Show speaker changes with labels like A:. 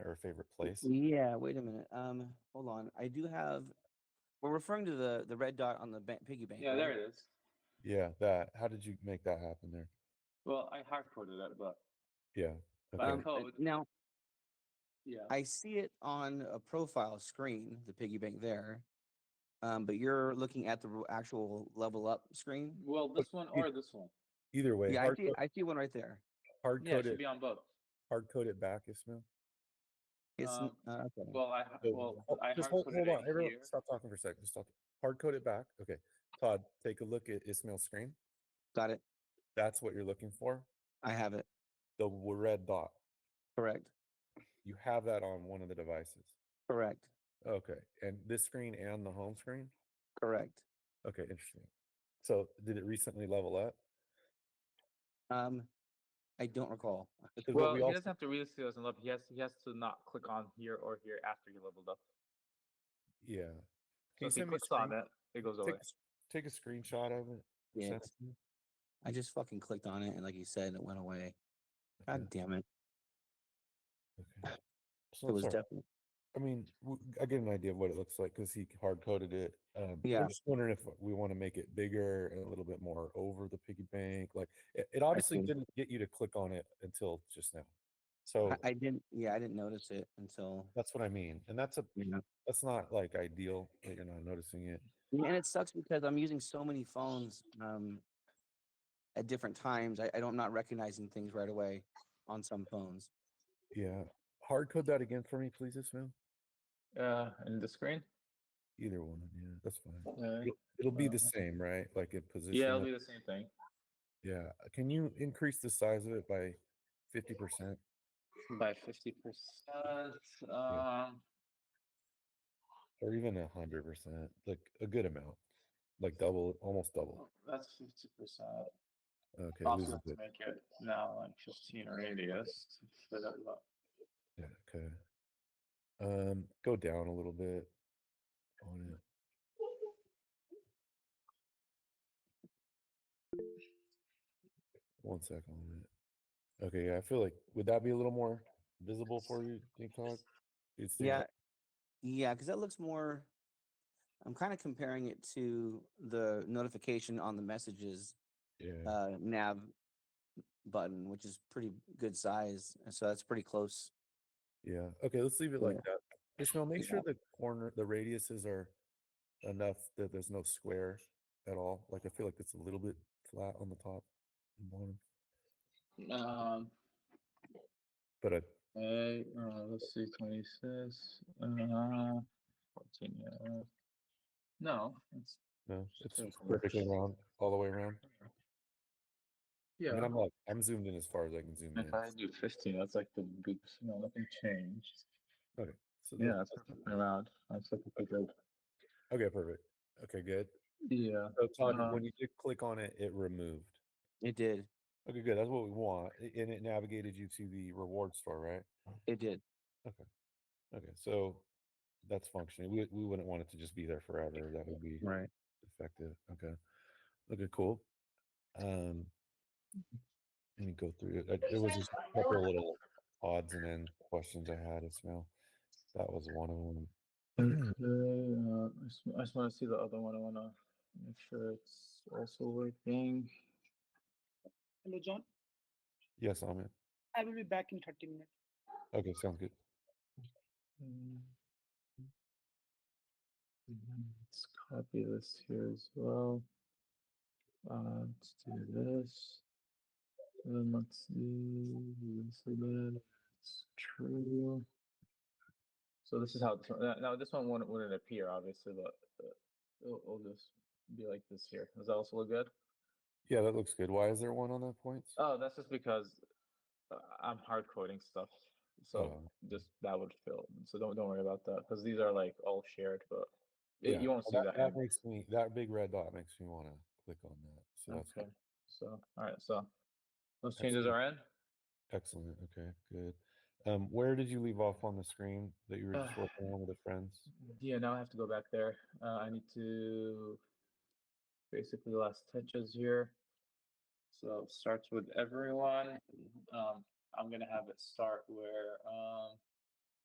A: her favorite place?
B: Mm-hmm.
C: Yeah, wait a minute. Um, hold on. I do have. We're referring to the the red dot on the ba- piggy bank.
B: Yeah,
C: right?
B: there it is.
A: Yeah, that. How did you make that happen there?
B: Well, I hard coded it, but
A: Yeah.
B: By
A: Okay.
C: Um, uh,
B: code.
C: Now
B: yeah.
C: I see it on a profile screen, the piggy bank there. Um, but you're looking at the r- actual level up screen.
B: Well, this one
A: you-
B: or this one.
A: Either way,
C: yeah, I
A: hard,
C: see.
A: co-
C: I see one right there.
A: hard
B: Yeah, it
A: code
B: should
A: it.
B: be on both.
A: Hard code it back, Ismail.
C: It's n-
B: Um,
C: uh, okay.
B: Well, I
A: So,
B: well,
A: hol-
B: I
A: oh, just
B: hard
A: hold,
B: coded
A: hold
B: it
A: on.
B: in
A: Everyone,
B: here.
A: stop talking for a second. Just stop. Hard code it back. Okay. Todd, take a look at Ismail's screen.
C: Got it.
A: That's what you're looking for.
C: I have it.
A: The w- red dot.
C: Correct.
A: You have that on one of the devices.
C: Correct.
A: Okay. And this screen and the home screen.
C: Correct.
A: Okay. Interesting. So did it recently level up?
C: Um, I don't recall.
A: 'Cause what
B: Well,
A: we
B: he
A: also-
B: doesn't have to read the and level. He has he has to not click on here or here after he leveled up.
A: yeah. Can
B: So if he
A: send me a
B: clicks on
A: screen-
B: that, it goes away.
A: Take, a s- take a screenshot of it.
C: Yeah,
A: send it to me.
C: I just fucking clicked on it, and like you said, it went away.
A: Okay,
C: God damn it!
A: okay. So
C: It was
A: sorry.
C: definitely.
A: I mean, w- I get an idea of what it looks like because he hard coded it. Um,
C: Yeah.
A: I'm just wondering if we want to make it bigger and a little bit more over the piggy bank. Like it, it obviously
C: see.
A: didn't get you to click on it until just now. So
C: I, I didn't. Yeah, I didn't notice it until.
A: that's what I mean, and that's a
C: You know.
A: that's not like ideal that you're not noticing it.
C: Yeah, and it sucks because I'm using so many phones um, at different times. I, I don't not recognizing things right away on some phones.
A: Yeah, hard code that again for me, please, Ismail.
B: Uh, in the screen.
A: Either one, yeah, that's fine.
B: Uh,
A: It'll be the
C: Uh-huh.
B: Uh,
A: same, right? Like in position.
B: yeah, it'll
A: of-
B: be the same thing.
A: Yeah. Can you increase the size of it by fifty percent?
B: By fifty percent. Um,
A: or even a hundred percent, like a good amount, like double, almost double.
B: that's fifty percent.
A: Okay,
B: Possible
A: loses
B: to
A: it.
B: make it now like fifteen or eighty. Yes. But, uh,
A: Yeah, okay. Um, go down a little bit on it. One second on it. Okay, yeah, I feel like would that be a little more visible for you, think Todd? Do you think
C: Yeah,
A: that-
C: yeah, because that looks more. I'm kind of comparing it to the notification on the messages
A: Yeah.
C: uh, nav button, which is pretty good size, and so that's pretty close.
A: Yeah. Okay, let's leave it
C: Yeah.
A: like that. Ishmael, make
C: Yeah.
A: sure the corner, the radiuses are enough that there's no square at all. Like I feel like it's a little bit flat on the top and bottom.
B: Um,
A: But I,
B: uh, uh, let's see, 26. Uh, 14, yeah. uh, No, it's,
A: no, it's
B: so cool.
A: perfectly round all the way around.
B: yeah.
A: I mean, I'm like, I'm zoomed in as far as I can zoom in.
B: if I do 15, that's like the big, you know, nothing changed.
A: So
B: Yeah,
A: that-
B: that's perfectly round. That's like a good,
A: Okay, perfect. Okay, good.
B: yeah.
A: So Todd,
B: Uh,
A: when you did click on it, it removed.
C: It did.
A: Okay, good. That's what we want. A- And it navigated you to the reward store, right?
C: It did.
A: Okay, so that's functioning. We we wouldn't want it to just be there forever. That would be
C: Right.
A: effective. Okay. Okay, cool. Um, let me go through it. Uh, There was just a couple of little odds and ends questions I had, Ismail. That was one of them.
B: Mm-hmm. Okay, uh, I just, I just want to see the other one. I want to make sure it's also working.
D: Hello, John.
A: Yes, Amit.
D: I will be back in 30 minutes.
A: Okay, sounds good.
B: Mm. Mm, Let's copy this here as well. Uh, let's do this. And then let's do this again. It's true. So this is how it tur- now- now this one wouldn't, wouldn't appear obviously, but uh, it'll, it'll just be like this here. Does that also look good?
A: Yeah, that looks good. Why is there one on that point?
B: Oh, that's just because uh, I'm hard coding stuff. So
A: Oh.
B: just that would fill. So don't don't worry about that because these are like all shared, but it, you won't see
A: well,
B: that.
A: That
B: in-
A: makes me that big red dot makes me want to click on that. So that's
B: okay. So all right. So those
A: That's
B: changes
A: good.
B: are in.
A: excellent. Okay, good. Um, where did you leave off on the screen that you were just
B: Uh,
A: working on with the friends?
B: Yeah. Now I have to go back there. Uh, I need to basically last touches here. So it starts with everyone. Um, I'm gonna have it start where um,